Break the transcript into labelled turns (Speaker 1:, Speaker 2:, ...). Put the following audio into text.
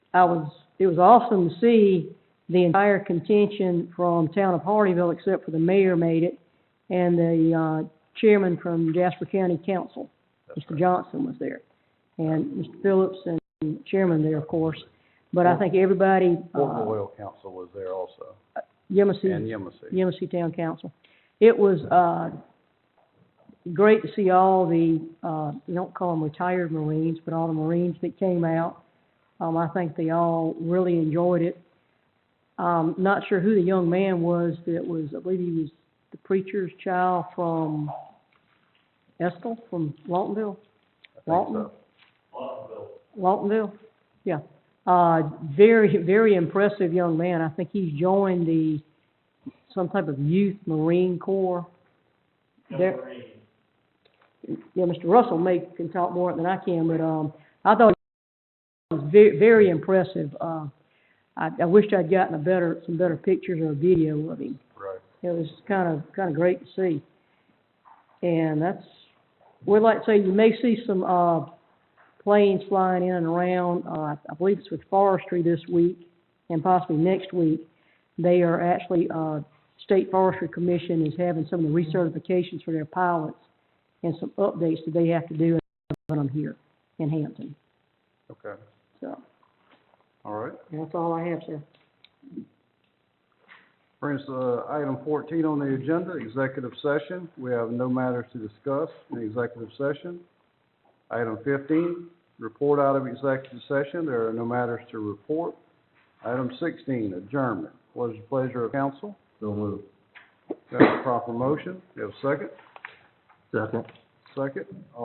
Speaker 1: I was, it was awesome to see the entire contention from town of Hardyville, except for the mayor made it, and the, uh, chairman from Jasper County Council, Mr. Johnson was there. And Mr. Phillips and chairman there, of course, but I think everybody,
Speaker 2: Portland
Speaker 1: uh,
Speaker 2: Oil Council was there also, and
Speaker 1: Yemassee,
Speaker 2: Yemassee.
Speaker 1: Yemassee Town Council. It was, uh, great to see all the, uh, you don't call them retired Marines, but all the Marines that came out. Um, I think they all really enjoyed it. Um, not sure who the young man was that was, I believe he was the preacher's child from Estill, from Lawtonville?
Speaker 2: I think
Speaker 1: Walton?
Speaker 2: so.
Speaker 1: Lawtonville? Yeah. Uh, very, very impressive young man. I think he's joined the, some type of youth Marine Corps. There- Yeah, Mr. Russell may, can talk more than I can, but, um, I thought it was ve- very impressive. Uh, I, I wished I'd gotten a better, some better pictures or a video of him.
Speaker 2: Right.
Speaker 1: It was kind of, kind of great to see. And that's, we'd like to say you may see some, uh, planes flying in and around. Uh, I believe it's with forestry this week and possibly next week. They are actually, uh, State Forestry Commission is having some of the recertifications for their pilots and some updates that they have to do on them here in Hampton.
Speaker 2: Okay,
Speaker 1: So,
Speaker 2: all right.
Speaker 1: that's all I have, sir.
Speaker 2: Brings, uh, item fourteen on the agenda, executive session. We have no matters to discuss in executive session. Item fifteen, report out of executive session. There are no matters to report. Item sixteen, adjournment. What is the pleasure of council?
Speaker 3: So moved.
Speaker 2: Got a proper motion? You have a second?
Speaker 3: Second.
Speaker 2: Second?